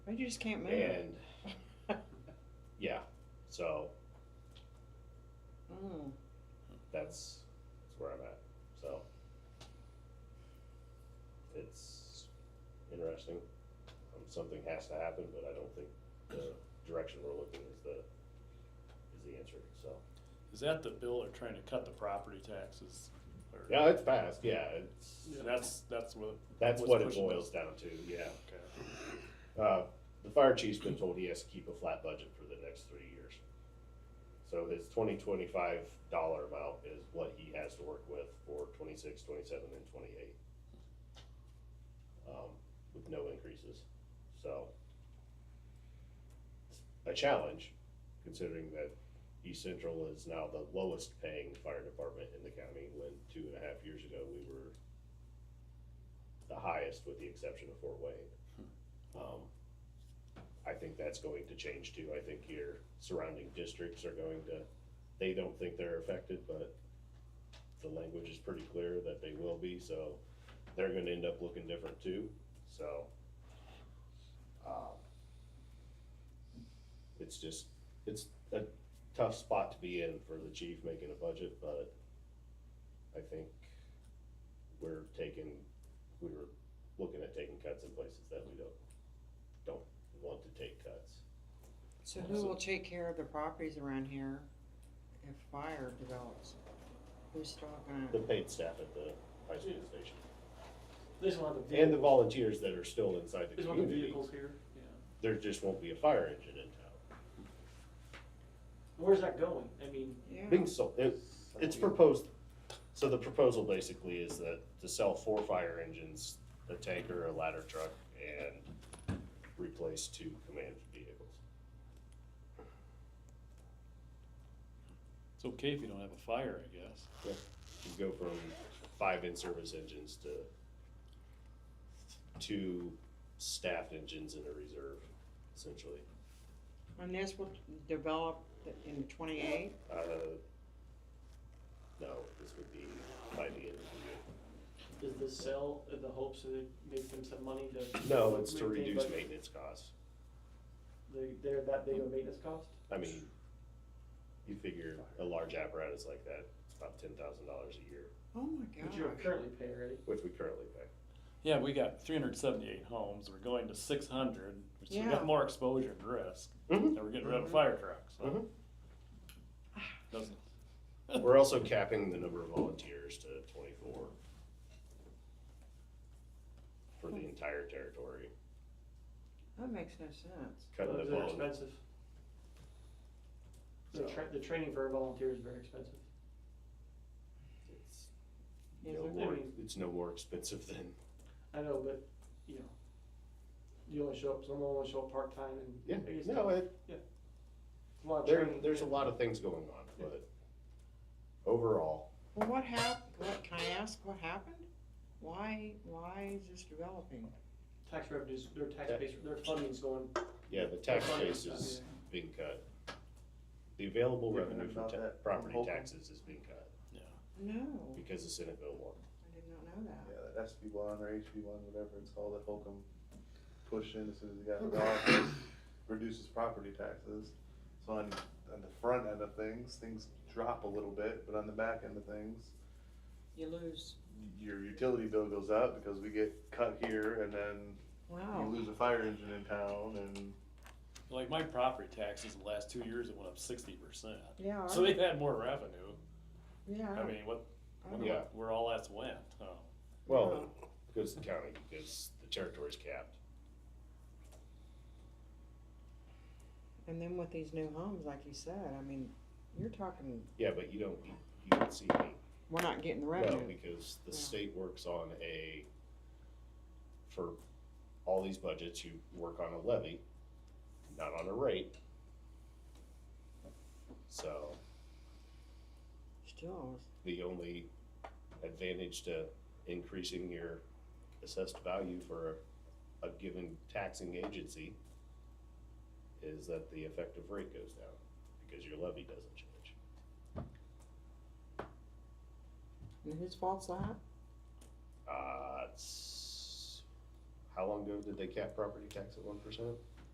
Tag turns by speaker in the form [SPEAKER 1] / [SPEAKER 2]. [SPEAKER 1] I just can't move.
[SPEAKER 2] And, yeah, so
[SPEAKER 1] Mm.
[SPEAKER 2] that's, that's where I'm at, so. It's interesting, um, something has to happen, but I don't think the direction we're looking is the, is the answer, so.
[SPEAKER 3] Is that the bill they're trying to cut the property taxes? or-
[SPEAKER 2] Yeah, it's fast, yeah, it's,
[SPEAKER 3] And that's, that's what.
[SPEAKER 2] that's
[SPEAKER 3] what's
[SPEAKER 2] what it
[SPEAKER 3] pushing
[SPEAKER 2] boils down to, yeah.
[SPEAKER 3] this. Okay.
[SPEAKER 2] Uh, the fire chief's been told he has to keep a flat budget for the next three years. So his twenty twenty-five dollar amount is what he has to work with for twenty-six, twenty-seven, and twenty-eight. Um, with no increases, so. A challenge, considering that East Central is now the lowest paying fire department in the county, when two and a half years ago, we were the highest with the exception of Fort Wayne. Um, I think that's going to change too. I think your surrounding districts are going to, they don't think they're affected, but the language is pretty clear that they will be, so they're gonna end up looking different too, so. um, It's just, it's a tough spot to be in for the chief making a budget, but I think we're taking, we were looking at taking cuts in places that we don't, don't want to take cuts.
[SPEAKER 1] So who will take care of the properties around here if fire develops? Who's still gonna?
[SPEAKER 2] The paid staff at the high school station,
[SPEAKER 4] They just want the
[SPEAKER 2] and the
[SPEAKER 4] vehicles,
[SPEAKER 2] volunteers that are still inside the
[SPEAKER 4] they just want the
[SPEAKER 2] community,
[SPEAKER 4] vehicles here, yeah.
[SPEAKER 2] there just won't be a fire engine in town.
[SPEAKER 4] Where's that going? I mean,
[SPEAKER 1] Yeah.
[SPEAKER 2] Being so, it, it's proposed, so the proposal basically is that to sell four fire engines, a tanker, a ladder truck, and replace two command vehicles.
[SPEAKER 3] It's okay if you don't have a fire, I guess.
[SPEAKER 2] You go from five in-service engines to two staffed engines in a reserve, essentially.
[SPEAKER 1] And this will develop in twenty-eight?
[SPEAKER 2] Uh, no, this would be by the end of
[SPEAKER 4] is the sale in the hopes that it makes them some money to?
[SPEAKER 2] the year. No, it's to
[SPEAKER 4] maintain
[SPEAKER 2] reduce
[SPEAKER 4] budget?
[SPEAKER 2] maintenance costs.
[SPEAKER 4] They, they're that big of a maintenance cost?
[SPEAKER 2] I mean, you figure a large apparatus like that, it's about ten thousand dollars a year,
[SPEAKER 1] Oh my
[SPEAKER 4] Which you're
[SPEAKER 1] gosh.
[SPEAKER 4] currently paying already.
[SPEAKER 2] which we currently pay.
[SPEAKER 3] Yeah, we got three hundred seventy-eight homes, we're going to six hundred, which we
[SPEAKER 1] Yeah.
[SPEAKER 3] got more exposure and risk,
[SPEAKER 2] Mhm.
[SPEAKER 3] and we're getting rid of fire trucks, so. Doesn't,
[SPEAKER 2] Mm-hmm. We're also capping the number of volunteers to twenty-four for the entire territory,
[SPEAKER 1] That makes no sense.
[SPEAKER 2] cutting the
[SPEAKER 4] Those are
[SPEAKER 2] bone.
[SPEAKER 4] expensive. The
[SPEAKER 2] So,
[SPEAKER 4] tra- the training for a volunteer is very expensive.
[SPEAKER 2] it's
[SPEAKER 1] Is
[SPEAKER 2] no
[SPEAKER 1] it?
[SPEAKER 2] more-
[SPEAKER 4] I mean-
[SPEAKER 2] It's no more expensive than,
[SPEAKER 4] I know, but, you know, you only show up, someone only show up part-time and.
[SPEAKER 2] yeah,
[SPEAKER 4] I guess
[SPEAKER 2] no, it,
[SPEAKER 4] it's a lot of
[SPEAKER 2] there,
[SPEAKER 4] training.
[SPEAKER 2] there's a lot of things going on, but overall,
[SPEAKER 1] Well, what hap, what, can I ask what happened? Why, why is this developing?
[SPEAKER 4] Tax revenues, their tax base, their funding's going,
[SPEAKER 2] yeah, the tax
[SPEAKER 4] Fine,
[SPEAKER 2] base
[SPEAKER 4] yeah.
[SPEAKER 2] is being cut. The available
[SPEAKER 5] You're
[SPEAKER 2] revenue from
[SPEAKER 5] about
[SPEAKER 2] ta-
[SPEAKER 5] that.
[SPEAKER 2] property
[SPEAKER 5] Hoping.
[SPEAKER 2] taxes is being cut
[SPEAKER 1] No, I
[SPEAKER 2] because the Senate bill won.
[SPEAKER 1] did not know that.
[SPEAKER 5] Yeah, that SB one or HB one, whatever it's called, that Holcomb pushed in as soon as he got into office, reduces property taxes. So on, on the front end of things, things drop a little bit, but on the back end of things,
[SPEAKER 1] You lose.
[SPEAKER 5] your utility bill goes up because we get cut here and then
[SPEAKER 1] Wow.
[SPEAKER 5] you lose a fire engine in town and
[SPEAKER 3] like, my property taxes the last two years, it went up sixty percent,
[SPEAKER 1] Yeah,
[SPEAKER 3] so they've had more revenue,
[SPEAKER 1] yeah.
[SPEAKER 3] I mean, what, wonder
[SPEAKER 2] Yeah.
[SPEAKER 3] what- where all that's went, huh?
[SPEAKER 2] Well, it goes to the county because the territory's capped.
[SPEAKER 1] And then with these new homes, like you said, I mean, you're talking,
[SPEAKER 2] Yeah, but you don't, you you don't see me.
[SPEAKER 1] we're not getting the
[SPEAKER 2] No,
[SPEAKER 1] revenue.
[SPEAKER 2] because the
[SPEAKER 1] Yeah.
[SPEAKER 2] state works on a, for all these budgets, you work on a levy, not on a rate. So
[SPEAKER 1] Still,
[SPEAKER 2] the only advantage to increasing your assessed value for a given taxing agency is that the effective rate goes down because your levy doesn't change.
[SPEAKER 1] and whose fault's that?
[SPEAKER 2] Uh, it's, how long ago did they cap property tax at one percent?